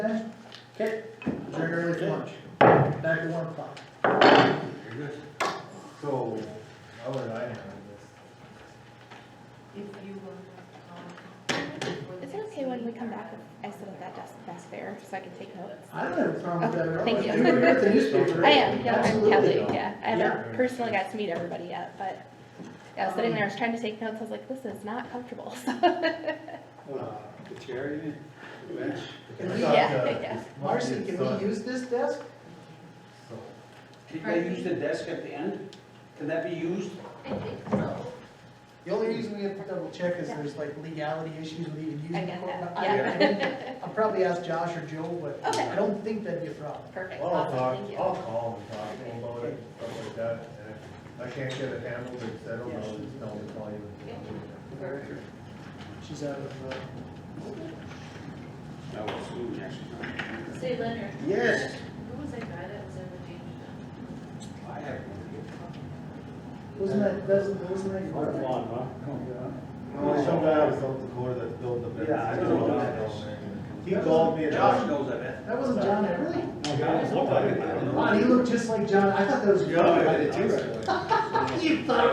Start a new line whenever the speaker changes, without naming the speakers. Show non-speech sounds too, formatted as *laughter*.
Okay, adjourn early for lunch, back at one o'clock.
Very good. So, how would I handle this?
If you were, um.
Is it okay when we come back, if I sit at that desk back there, so I can take notes?
I don't have a problem with that at all.
Thank you.
You were at the newspaper,
I
right?
am, yeah, I'm
Absolutely.
Kelly, yeah, I
Yeah.
haven't personally got to meet everybody yet, but, yeah, I was sitting there, I was trying to take notes, I was like, this is not comfortable, *laughs* so.
Uh, The chair, you mean? The bench?
Can
I
we-
thought,
Yeah,
uh,
yeah.
this might
Marcy,
be
can
fun,
we use this desk?
so.
Did they use the desk at the end? Can that be used?
I think so.
The only reason we have to double check is there's like legality issues with even using.
I
the
get
court.
that,
I- I
yeah.
didn't- I'll probably ask Josh or Joel, but
Okay.
I don't think that'd be a problem.
Perfect,
Well, uh, oh, I'll talk,
awesome, thank
I'll
you.
call and talk to him about it, stuff like that, and if I can't get it handled or settled, I'll just tell him to call you.
She's out of, uh,
No, it's soon, actually.
Say Leonard.
Yes.
Who was that guy that was ever changed?
I have
wasn't that, doesn't, wasn't that?
one.
your-
No, some guy out of South Dakota that's building the business.
Yeah, I don't know.
He called me. and-
Josh knows, I bet.
That wasn't John Everly?
Yeah, it looked like it.
Wow, he looked just like John, I thought that was.
Yeah, I did too.
You thought